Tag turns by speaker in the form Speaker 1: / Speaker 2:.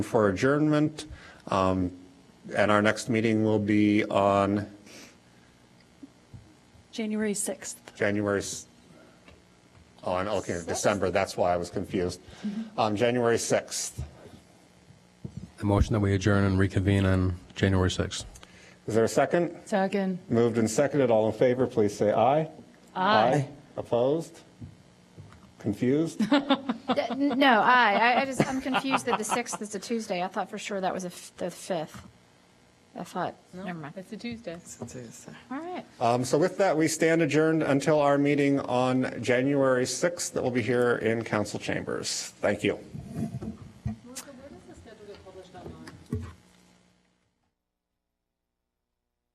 Speaker 1: for adjournment. Um, And our next meeting will be on
Speaker 2: January 6th.
Speaker 1: January, s- on, okay, December, that's why I was confused. Um, January 6th.
Speaker 3: A motion that we adjourn and reconvene on January 6th.
Speaker 1: Is there a second?
Speaker 2: Second.
Speaker 1: Moved and seconded, all in favor, please say aye. Aye. Opposed? Confused?
Speaker 4: Uh, n- No, I, I- I just, I'm confused that the 6th is a Tuesday. I thought for sure that was a f- the 5th. I thought, never mind.
Speaker 5: It's a Tuesday.
Speaker 4: All right.
Speaker 1: Um, So with that, we stand adjourned until our meeting on January 6th that will be here in council chambers. Thank you.